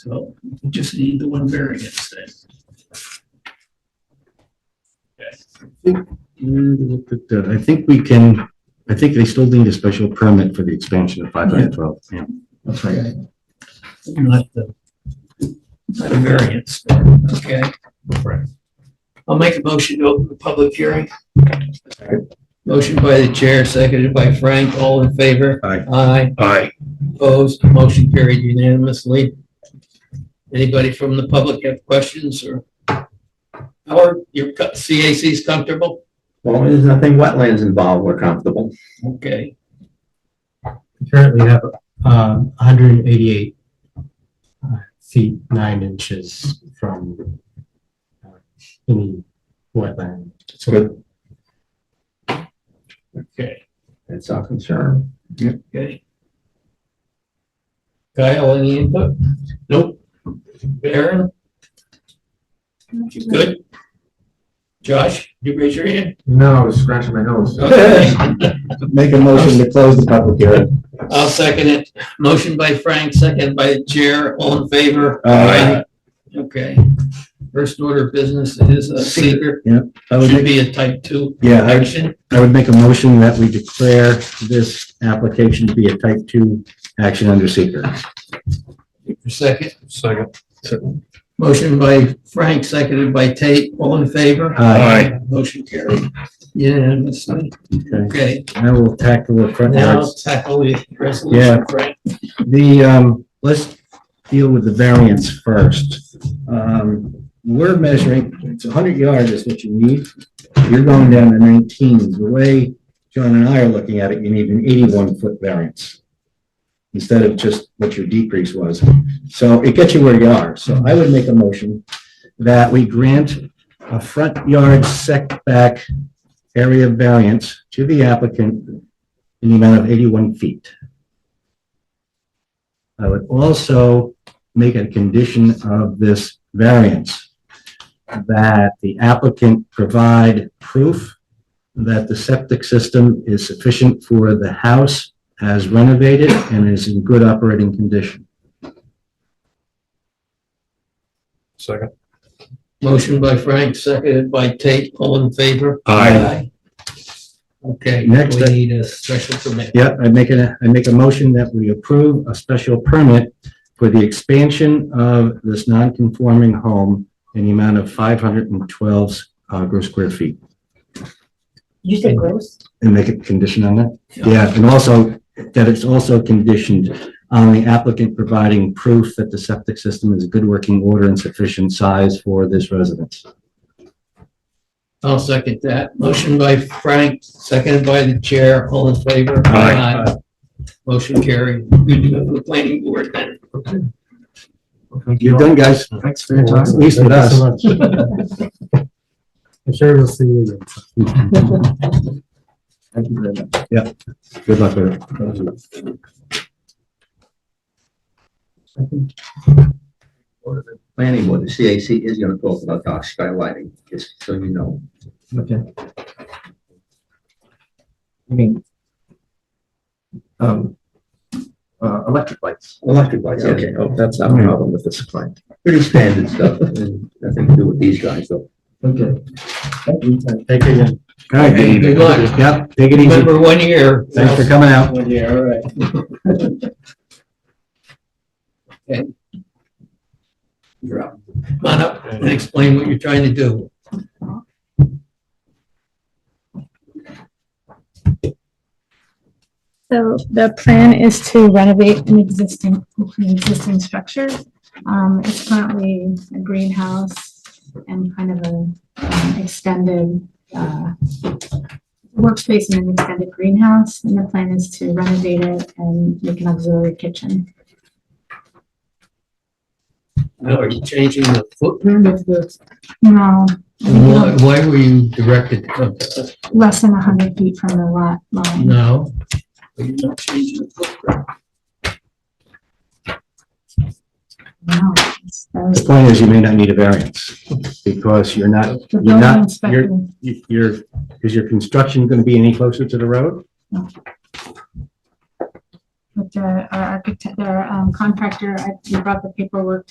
So we just need the one variance then. Uh, I think we can, I think they still need a special permit for the expansion of five hundred twelve. Yeah. That's right. Not the, not a variance, okay? Right. I'll make a motion to open the public hearing. Motion by the chair, seconded by Frank, all in favor? Aye. Aye, Aye. opposed, motion carried unanimously. Anybody from the public have questions or? Howard, your co- CAC's comfortable? long as there's nothing wetlands involved, we're comfortable. Okay, currently have um, 188 uh, feet, 9 inches from uh, any wetland. It's good. okay, It's our concern. okay. Kyle, any input? Nope. Aaron? You good? Josh, you raise your hand? No, I was scratching my nose. Okay. Make a motion to close the public hearing. I'll second it. Motion by Frank, second by the chair, all in favor? Aye. Okay. First order of business is a seeker, I would should make, be a type two yeah, I would, action. I would make a motion that we declare this application to be a type two action under seeker. Second, Second. motion by Frank, seconded by Tate, all in favor? Aye. Motion carried. Unanimously. Okay, I will tackle the front now yards. tackle the Yeah. resolution, Frank. The, um, let's deal with the variance first. Um, we're measuring, it's hundred yards is what you need. You're going down to nineteen. The way John and I are looking at it, you need an eighty-one foot variance instead of just what your decrease was. So it gets you where you are. So I would make a motion that we grant a front yard setback area variance to the applicant in the amount of eighty-one feet. I would also make a condition of this variance that the applicant provide proof that the septic system is sufficient for the house as renovated and is in good operating condition. Second. Motion by Frank, seconded by Tate, all in favor? Aye. Okay, we Next, I- need a special permit. Yeah, I make a, I make a motion that we approve a special permit for the expansion of this non-conforming home in the amount of 512 uh, gross square feet. You said gross? And make a condition on that? Yeah. Yeah, and also that it's also conditioned on the applicant providing proof that the septic system is good working order and sufficient size for this residence. I'll second that. Motion by Frank, seconded by the chair, all in favor? Aye. Motion carried. Good to go to the planning board then. You're done, guys. Thanks for At least with Thank you us. so much. I'm sure we'll see you again. Yeah, good luck with it. Planning board, the CAC is gonna talk about dark sky lighting, just so you know. Okay. I mean, um, uh, electric lights. Electric lights, Okay, okay, oh, that's not a problem with this client. pretty standard stuff, and nothing to do with these guys though. Okay. Thank you. Take it easy. All right, good Good luck. luck. Yep, take it easy. Remember one year. Thanks for coming out. One year, all right. Okay. You're up. Come on up and explain what you're trying to do. So the plan is to renovate an existing, an existing structure. Um, it's currently a greenhouse and kind of a um, extended, uh, workspace in an extended greenhouse, and the plan is to renovate it and make an auxiliary kitchen. Now, are you changing the footprint of the, No, why, why were you directed to come to us less than hundred feet from the lot line. now? Are you not changing the footprint? No, it's- that The was- point is you may not need a variance because you're not, The you're building not, inspector, you're, you're, is your construction going to be any closer to the road? with the, our architect, our um, contractor, I, he brought the paperwork to